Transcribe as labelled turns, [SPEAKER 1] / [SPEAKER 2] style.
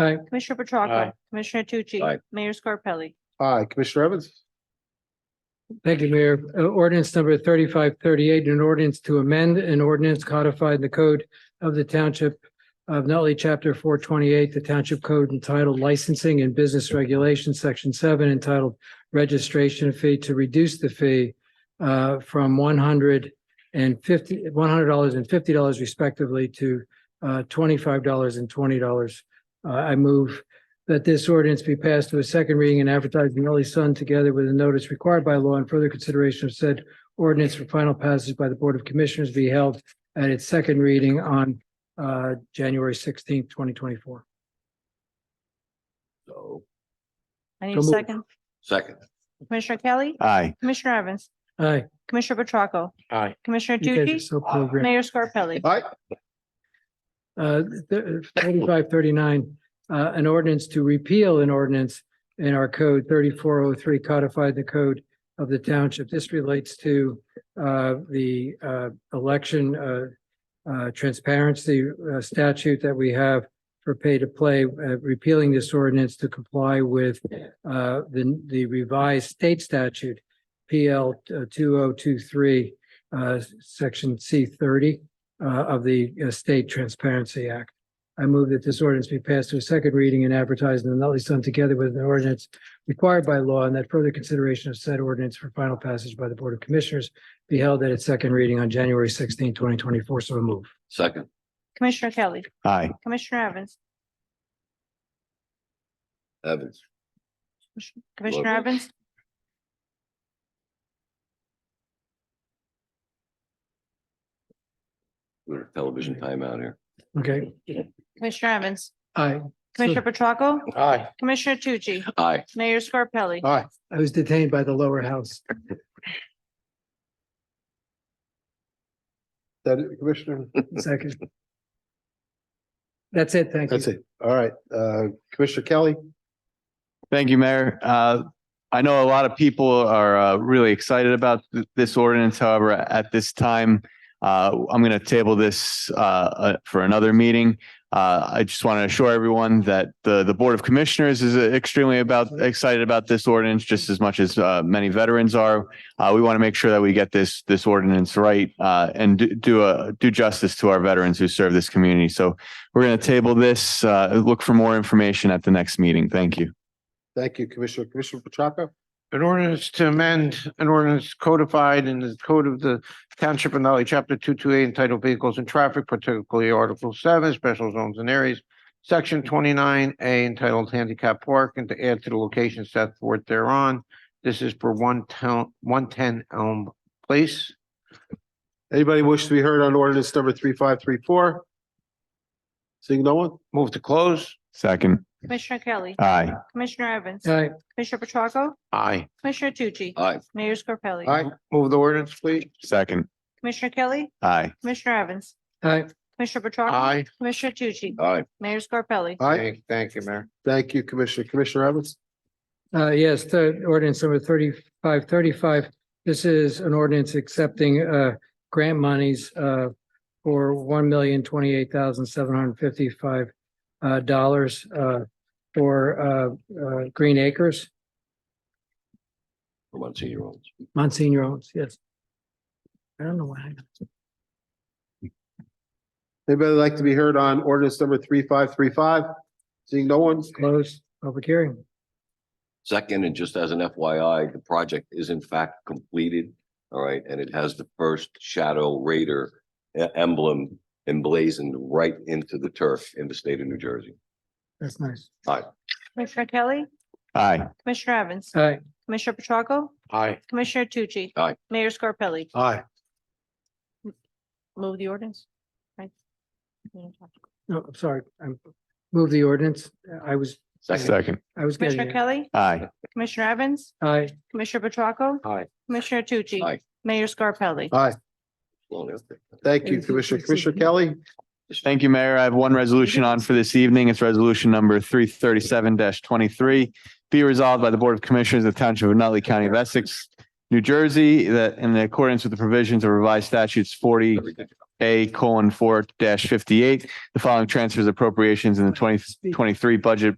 [SPEAKER 1] Aye.
[SPEAKER 2] Commissioner Petracca.
[SPEAKER 3] Aye.
[SPEAKER 2] Commissioner Tucci.
[SPEAKER 3] Aye.
[SPEAKER 2] Mayor Scarpelli.
[SPEAKER 4] Aye, Commissioner Evans.
[SPEAKER 1] Thank you, Mayor. Uh, Ordinance number thirty-five thirty-eight, an ordinance to amend an ordinance codified in the code of the Township of Nutley, Chapter four twenty-eight, the Township Code entitled Licensing and Business Regulations, Section seven, entitled Registration Fee to reduce the fee uh, from one hundred and fifty, one hundred dollars and fifty dollars respectively to uh, twenty-five dollars and twenty dollars. Uh, I move that this ordinance be passed to a second reading and advertised in the Early Sun together with a notice required by law and further consideration of said ordinance for final passage by the Board of Commissioners be held at its second reading on uh, January sixteenth, twenty twenty-four.
[SPEAKER 3] So,
[SPEAKER 2] I need
[SPEAKER 1] So
[SPEAKER 2] a
[SPEAKER 1] moved.
[SPEAKER 2] second.
[SPEAKER 3] second.
[SPEAKER 2] Commissioner Kelly.
[SPEAKER 3] Aye.
[SPEAKER 2] Commissioner Evans.
[SPEAKER 1] Aye.
[SPEAKER 2] Commissioner Petracca.
[SPEAKER 3] Aye.
[SPEAKER 2] Commissioner
[SPEAKER 1] You guys are
[SPEAKER 2] Tucci.
[SPEAKER 1] so programmed.
[SPEAKER 2] Mayor Scarpelli.
[SPEAKER 4] Aye,
[SPEAKER 1] Uh, thirty-five thirty-nine, uh, an ordinance to repeal an ordinance in our code thirty-four oh three codified in the code of the township. This relates to, uh, the, uh, election, uh, uh, transparency uh, statute that we have for pay to play, uh, repealing this ordinance to comply with, uh, the, the revised state statute, PL two oh two three, uh, section C thirty uh, of the uh, State Transparency Act. I move that this ordinance be passed to a second reading and advertised in the Nutley Sun together with an ordinance required by law and that further consideration of said ordinance for final passage by the Board of Commissioners be held at its second reading on January 16, twenty twenty-four. So move.
[SPEAKER 3] Second.
[SPEAKER 2] Commissioner Kelly.
[SPEAKER 3] Aye.
[SPEAKER 2] Commissioner Evans.
[SPEAKER 3] Evans.
[SPEAKER 2] Commissioner
[SPEAKER 3] Lovely.
[SPEAKER 2] Evans.
[SPEAKER 3] We're television timeout here.
[SPEAKER 1] Okay.
[SPEAKER 2] Commissioner Evans.
[SPEAKER 1] I,
[SPEAKER 2] Commissioner Petracca.
[SPEAKER 3] Aye.
[SPEAKER 2] Commissioner Tucci.
[SPEAKER 3] Aye.
[SPEAKER 2] Mayor Scarpelli.
[SPEAKER 4] aye,
[SPEAKER 1] I was detained by the lower house.
[SPEAKER 4] that it, Commissioner,
[SPEAKER 1] Second. That's it. Thank you.
[SPEAKER 4] that's it. All right, uh, Commissioner Kelly.
[SPEAKER 5] Thank you, Mayor. Uh, I know a lot of people are uh, really excited about th- this ordinance. However, at this time, uh, I'm going to table this uh, uh, for another meeting. Uh, I just want to assure everyone that the, the Board of Commissioners is uh, extremely about, excited about this ordinance just as much as uh, many veterans are. Uh, We want to make sure that we get this, this ordinance right uh, and do- do, a- do justice to our veterans who serve this community. So we're going to table this. uh, Look for more information at the next meeting. Thank you.
[SPEAKER 4] Thank you, Commissioner. Commissioner Petracca.
[SPEAKER 6] An ordinance to amend an ordinance codified in the code of the Township of Nutley, Chapter two two eight entitled Vehicles and Traffic, particularly Article seven, Special Zones and Areas, Section twenty-nine A entitled Handicap Park, and to add to the location set forth thereon. This is for one town, one ten Elm Place.
[SPEAKER 4] Anybody wish to be heard on ordinance number three five three four? Seeing no one?
[SPEAKER 6] Move to close.
[SPEAKER 5] Second,
[SPEAKER 2] Commissioner Kelly.
[SPEAKER 5] aye.
[SPEAKER 2] Commissioner Evans.
[SPEAKER 1] All right.
[SPEAKER 2] Commissioner Petracca.
[SPEAKER 6] Aye.
[SPEAKER 2] Commissioner Tucci.
[SPEAKER 3] Aye.
[SPEAKER 2] Mayor Scarpelli.
[SPEAKER 4] Aye,
[SPEAKER 6] Move the ordinance, please.
[SPEAKER 5] Second,
[SPEAKER 2] Commissioner Kelly.
[SPEAKER 5] aye.
[SPEAKER 2] Commissioner Evans.
[SPEAKER 1] All right.
[SPEAKER 2] Commissioner Petracca.
[SPEAKER 6] Aye.
[SPEAKER 2] Commissioner Tucci.
[SPEAKER 3] Aye.
[SPEAKER 2] Mayor Scarpelli.
[SPEAKER 4] aye.
[SPEAKER 6] Thank thank you, Mayor.
[SPEAKER 4] Thank you, Commissioner. Commissioner Evans.
[SPEAKER 1] Uh, yes, the ordinance number thirty-five thirty-five. This is an ordinance accepting, uh, grant monies, uh, for one million twenty-eight thousand seven hundred fifty-five, uh, dollars, uh, for, uh, uh, Green Acres,
[SPEAKER 3] For one senior olds.
[SPEAKER 1] Monsignor owns, yes. I don't know why.
[SPEAKER 4] Anybody like to be heard on ordinance number three five three five? Seeing no one?
[SPEAKER 1] Close public hearing.
[SPEAKER 3] Second, and just as an FYI, the project is in fact completed. All right, and it has the first Shadow Raider e- emblem emblazoned right into the turf in the state of New Jersey.
[SPEAKER 1] That's nice.
[SPEAKER 2] Commissioner Kelly.
[SPEAKER 5] Aye.
[SPEAKER 2] Commissioner Evans.
[SPEAKER 1] All right.
[SPEAKER 2] Commissioner Petracca.
[SPEAKER 6] Aye.
[SPEAKER 2] Commissioner Tucci.
[SPEAKER 3] Aye.
[SPEAKER 2] Mayor Scarpelli.
[SPEAKER 4] Aye.
[SPEAKER 2] Move the ordinance. Right.
[SPEAKER 1] No, I'm sorry. I move the ordinance. I was,
[SPEAKER 3] Second,
[SPEAKER 5] Second,
[SPEAKER 1] I was getting
[SPEAKER 2] Commissioner
[SPEAKER 1] it.
[SPEAKER 2] Kelly.
[SPEAKER 5] aye.
[SPEAKER 2] Commissioner Evans.
[SPEAKER 1] Aye.
[SPEAKER 2] Commissioner Petracca.
[SPEAKER 6] Aye.
[SPEAKER 2] Commissioner Tucci.
[SPEAKER 3] Aye.
[SPEAKER 2] Mayor Scarpelli.
[SPEAKER 4] Aye,
[SPEAKER 3] Well, yeah.
[SPEAKER 4] thank you, Commissioner. Commissioner Kelly.
[SPEAKER 5] Thank you, Mayor. I have one resolution on for this evening. It's resolution number three thirty-seven twenty-three. Be resolved by the Board of Commissioners of the Township of Nutley County of Essex, New Jersey, that in accordance with the provisions of revised statutes forty A colon four dash fifty-eight. The following transfers appropriations in the twenty twenty-three budget